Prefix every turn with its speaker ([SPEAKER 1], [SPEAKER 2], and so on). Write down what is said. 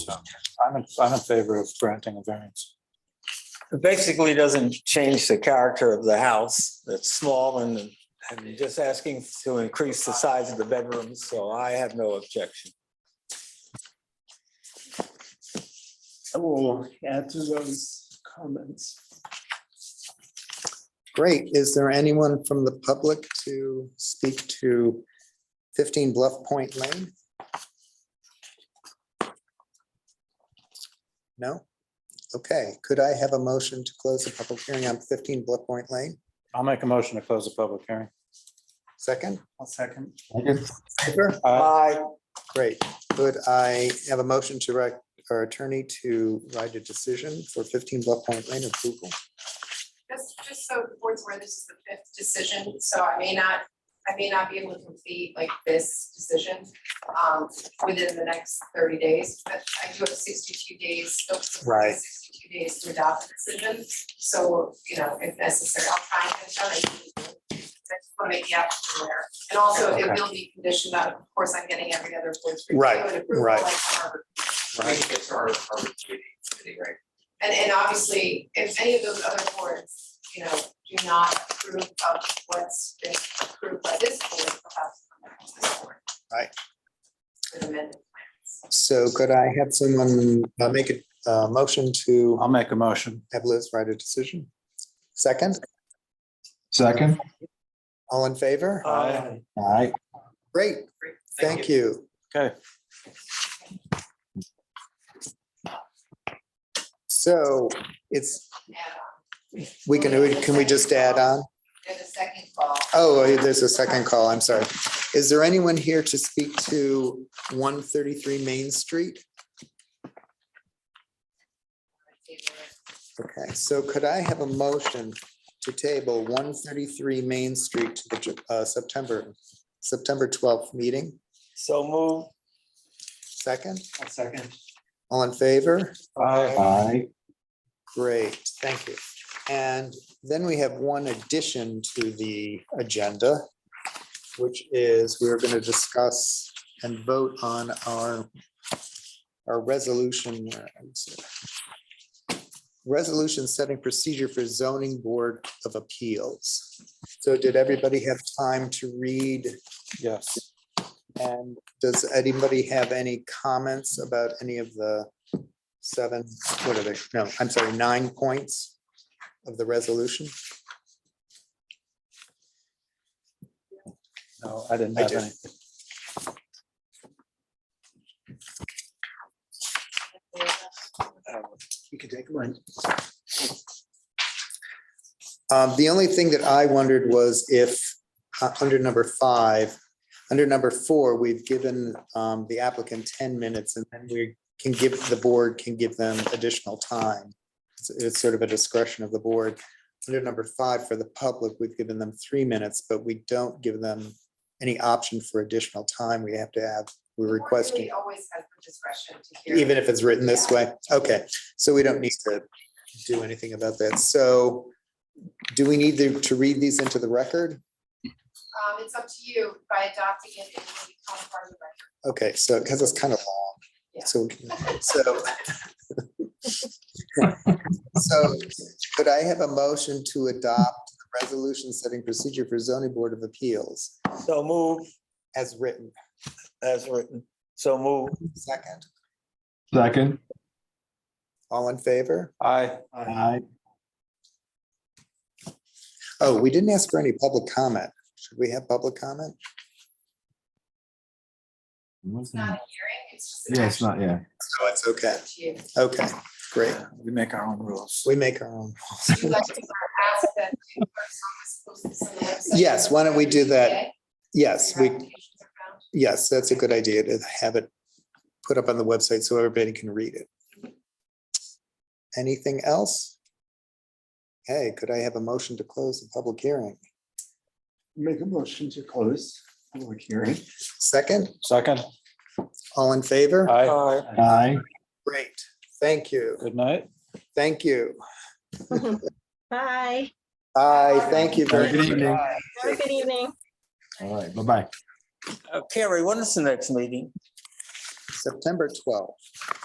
[SPEAKER 1] I'm, in- I'm in favor of granting a variance.
[SPEAKER 2] It basically doesn't change the character of the house. It's small and, and just asking to increase the size of the bedrooms, so I have no objection.
[SPEAKER 3] I will add to those comments.
[SPEAKER 4] Great. Is there anyone from the public to speak to 15 Bluff Point Lane? No? Okay, could I have a motion to close the public hearing on 15 Bluff Point Lane?
[SPEAKER 1] I'll make a motion to close the public hearing.
[SPEAKER 4] Second?
[SPEAKER 3] I'll second.
[SPEAKER 4] Favor?
[SPEAKER 1] Uh,
[SPEAKER 2] Aye.
[SPEAKER 4] Great. Could I have a motion to direct our attorney to write a decision for 15 Bluff Point Lane approval?
[SPEAKER 5] Just, just so the board's aware, this is the fifth decision, so I may not, I may not be able to complete like this decision um, within the next thirty days, but I do have sixty-two days, still
[SPEAKER 4] Right.
[SPEAKER 5] sixty-two days to adopt the decision, so, you know, if necessary, I'll try and get it done. I can do it. I just want to make the applicant aware, and also it will be conditioned on, of course, I'm getting every other board's review
[SPEAKER 4] Right,
[SPEAKER 5] and approval,
[SPEAKER 4] right.
[SPEAKER 5] like our-
[SPEAKER 6] It's our, our duty.
[SPEAKER 5] pretty great. And and obviously, if any of those other boards, you know, do not approve of what's been approved by this board, they'll have to come back to this board.
[SPEAKER 4] Right.
[SPEAKER 5] With amended plans.
[SPEAKER 4] So could I have someone uh, make a uh, motion to
[SPEAKER 1] I'll make a motion.
[SPEAKER 4] have Liz write a decision? Second?
[SPEAKER 7] Second?
[SPEAKER 4] All in favor?
[SPEAKER 2] Aye.
[SPEAKER 7] All right.
[SPEAKER 4] Uh, Great,
[SPEAKER 5] Great.
[SPEAKER 4] thank you.
[SPEAKER 1] Okay.
[SPEAKER 4] So it's,
[SPEAKER 5] And uh,
[SPEAKER 4] we can, can we just add on?
[SPEAKER 5] there's a second call.
[SPEAKER 4] Oh, there's a second call, I'm sorry. Is there anyone here to speak to one thirty-three Main Street? Okay, so could I have a motion to table one thirty-three Main Street to the Ju- uh, September, September twelfth meeting?
[SPEAKER 2] So move.
[SPEAKER 4] Second,
[SPEAKER 3] I'll second.
[SPEAKER 4] all in favor?
[SPEAKER 1] Aye.
[SPEAKER 7] All right.
[SPEAKER 4] Great, thank you. And then we have one addition to the agenda, which is we're going to discuss and vote on our, our resolution. where is it? Resolution setting procedure for zoning board of appeals. So did everybody have time to read?
[SPEAKER 1] Yes.
[SPEAKER 4] And does anybody have any comments about any of the seven, what are they? No, I'm sorry, nine points of the resolution?
[SPEAKER 1] No, I didn't
[SPEAKER 4] I
[SPEAKER 1] have
[SPEAKER 4] did.
[SPEAKER 1] any.
[SPEAKER 3] You can take one.
[SPEAKER 4] Um, The only thing that I wondered was if, uh, under number five, under number four, we've given um, the applicant 10 minutes and then we can give, the board can give them additional time. It's- It's sort of a discretion of the board. Under number five, for the public, we've given them three minutes, but we don't give them any option for additional time. We have to have, we're
[SPEAKER 5] The board
[SPEAKER 4] requesting.
[SPEAKER 5] really Always has the discretion to hear.
[SPEAKER 4] Even if it's written this way? Okay, so we don't need to do anything about that. So do we need to to read these into the record?
[SPEAKER 5] Um, it's up to you by adopting it, it will become part of the record.
[SPEAKER 4] Okay, so, because it's kind of long.
[SPEAKER 5] Yeah.
[SPEAKER 4] So, we can- so. So could I have a motion to adopt the resolution setting procedure for zoning board of appeals
[SPEAKER 2] So move
[SPEAKER 4] as written?
[SPEAKER 2] as written. So move.
[SPEAKER 4] Second,
[SPEAKER 7] Second?
[SPEAKER 4] all in favor?
[SPEAKER 1] Aye.
[SPEAKER 7] Aye.
[SPEAKER 4] Oh, we didn't ask for any public comment. Should we have public comment?
[SPEAKER 5] It's not a hearing, it's just an
[SPEAKER 7] Yeah, it's
[SPEAKER 5] action.
[SPEAKER 7] not, yeah.
[SPEAKER 4] No, Oh, it's okay.
[SPEAKER 5] Up to you.
[SPEAKER 4] Okay, great.
[SPEAKER 1] We make our own rules.
[SPEAKER 4] We make our own.
[SPEAKER 5] Would you like to ask that the clerk's office post this on the website?
[SPEAKER 4] Yes, why don't we do that?
[SPEAKER 5] Okay,
[SPEAKER 4] Yes,
[SPEAKER 5] your
[SPEAKER 4] we,
[SPEAKER 5] applications are found.
[SPEAKER 4] yes, that's a good idea to have it put up on the website so everybody can read it. Anything else? Hey, could I have a motion to close the public hearing?
[SPEAKER 3] Make a motion to close public hearing.
[SPEAKER 4] Second,
[SPEAKER 1] Second.
[SPEAKER 4] all in favor?
[SPEAKER 1] Aye.
[SPEAKER 2] Aye.
[SPEAKER 7] Aye.
[SPEAKER 4] Great, thank you,
[SPEAKER 1] Good night.
[SPEAKER 4] thank you.
[SPEAKER 8] Bye.
[SPEAKER 4] Aye, thank you very
[SPEAKER 7] Good
[SPEAKER 4] much.
[SPEAKER 7] evening.
[SPEAKER 8] Have a good evening.
[SPEAKER 7] All right, bye-bye.
[SPEAKER 2] Uh, Carrie, when is the next meeting?
[SPEAKER 4] September twelfth.